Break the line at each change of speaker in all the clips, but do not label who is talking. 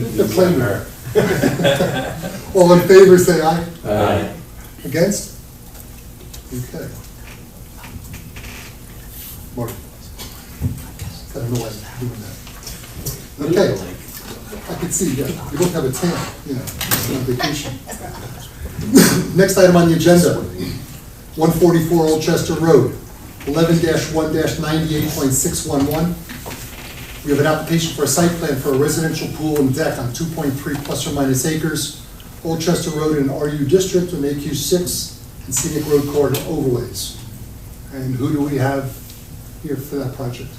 The playground. All in favor, say aye.
Aye.
Against? Okay. Mark. I don't know why I'm doing that. Okay. I can see, yeah, you both have a tan, you know, it's on vacation. Next item on the agenda, one forty-four Old Chester Road, eleven one ninety-eight point six one one. We have an application for a site plan for a residential pool and deck on two point three plus or minus acres, Old Chester Road in RU District with AQ six and scenic road corridor overlays. And who do we have here for that project?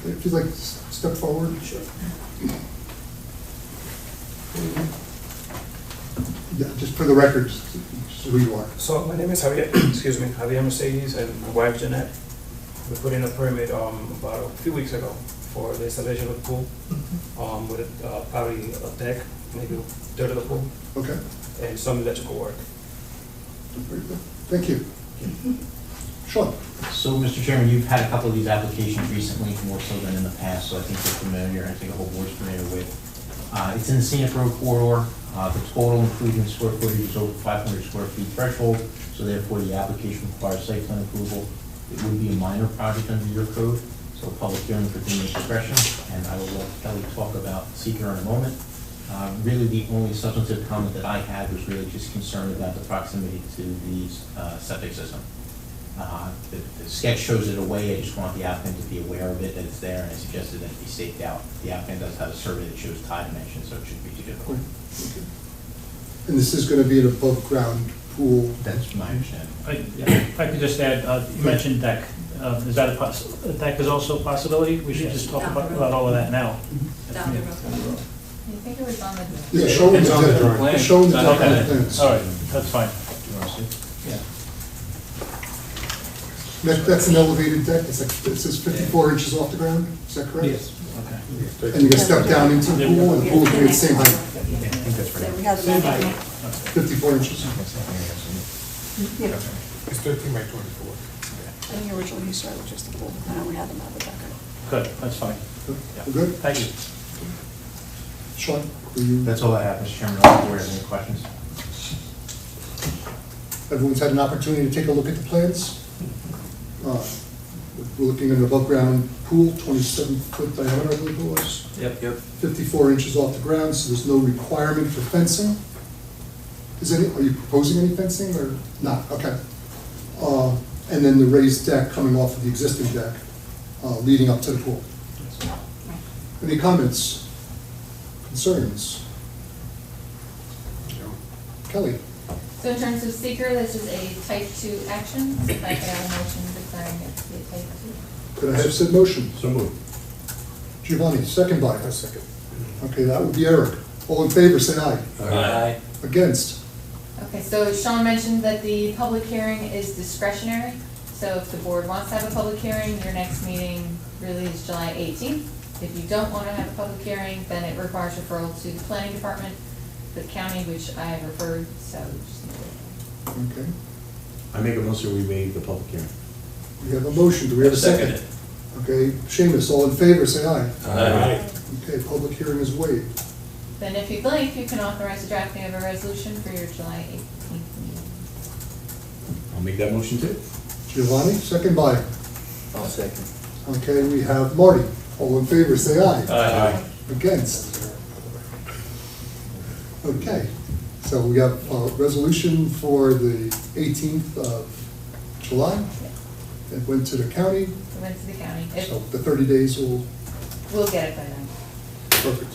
Okay, If you'd like to s- step forward. Sure. Yeah, just for the record, just who you are.
So my name is Javier, excuse me, Javier Mercedes and my wife Jeanette. We put in a permit um, about a few weeks ago for the installation of a pool um, with uh, probably a deck, maybe a third of the pool,
Okay,
and some electrical work.
very good. Thank you. Sean?
So, Mr. Chairman, you've had a couple of these applications recently, more so than in the past, so I think you're familiar, and I think the whole board's familiar with. Uh, It's in the scenic road corridor, Uh, the total improvement square footage is over 500 square feet threshold, so therefore the application requires site plan approval. It would be a minor project under your code, so public hearing for continued discretion, and I will let Kelly talk about seeker in a moment. Uh, Really, the only substantive comment that I had was really just concerned about the proximity to the uh, septic system. Uh, The the sketch shows it away, I just want the applicant to be aware of it, that it's there, and I suggested that it be staked out. The applicant does have a survey that shows tie dimensions, so it shouldn't be too difficult.
And this is gonna be an above-ground pool?
That's my understanding.
I- If I could just add, uh, you mentioned deck. Uh, Is that a poss, a deck is also a possibility? We should just talk about about all of that now.
down the road.
I think it was on the,
Yeah, show them the deck, show them the deck on the plans.
All right, that's fine.
Do you want to see?
That, that's an elevated deck, it's like, it says fifty-four inches off the ground, is that correct?
Okay.
And you're gonna step down into the pool, and the pool's gonna be the same height,
I think that's pretty.
So we have the map.
fifty-four inches.
It's thirteen by twenty-four.
In the original use right, which is the pool, and then we had them have a decker.
Good, that's fine.
We're good?
Thank you.
Sean, were you,
That's all I have, Mr. Chairman. I'll board have any questions.
everyone's had an opportunity to take a look at the plans? Uh, We're looking at an above-ground pool, twenty-seven foot diameter, I believe it was,
Yep, yep.
fifty-four inches off the ground, so there's no requirement for fencing? Is any, are you proposing any fencing, or not? Okay. Uh, And then the raised deck coming off of the existing deck, uh, leading up to the pool. Any comments, concerns? Kelly?
so in terms of seeker, this is a type two action, so if I could have a motion declaring it to be a type two.
Could I have said motion?
So moved.
Giovanni, second by.
A second.
Okay, that would be Eric. All in favor, say aye.
Aye.
Against?
Okay, so Sean mentioned that the public hearing is discretionary, so if the board wants to have a public hearing, your next meeting really is July eighteenth. If you don't wanna have a public hearing, then it requires referral to the planning department, the county, which I have referred, so just need to-
Okay,
I make a motion, we made the public hearing.
we have a motion, do we have a second? Okay, Seamus, all in favor, say aye.
Aye.
Okay, public hearing is waived.
Then if you'd like, you can authorize the drafting of a resolution for your July eighteenth meeting.
I'll make that motion too.
Giovanni, second by.
I'll second.
Okay, we have Marty. All in favor, say aye.
Aye.
Against? Okay, so we have a resolution for the 18th of July. It went to the county,
It went to the county. It-
so the 30 days will,
We'll get it by then.
perfect.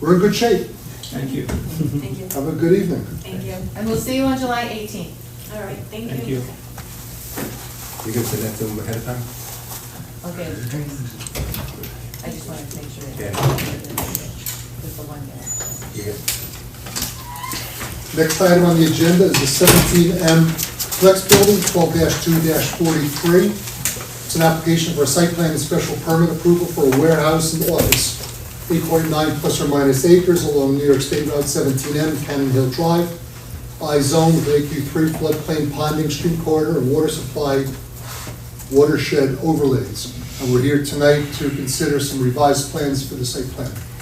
We're in good shape.
Thank you.
Thank you,
Have a good evening.
thank you.
And we'll see you on July 18th.
All right, thank you.
Thank you.
You can send that to them ahead of time?
I'll get it. I just wanted to make sure. that-
Yeah.
Just the one day.
Next item on the agenda is the seventeen M Flex Building, twelve two forty-three. It's an application for a site plan and special permit approval for a warehouse and office, eight point nine plus or minus acres along New York State Route seventeen M, Cannon Hill Drive, I-zone with AQ three floodplain ponding stream corridor and water supply watershed overlays. And we're here tonight to consider some revised plans for the site plan.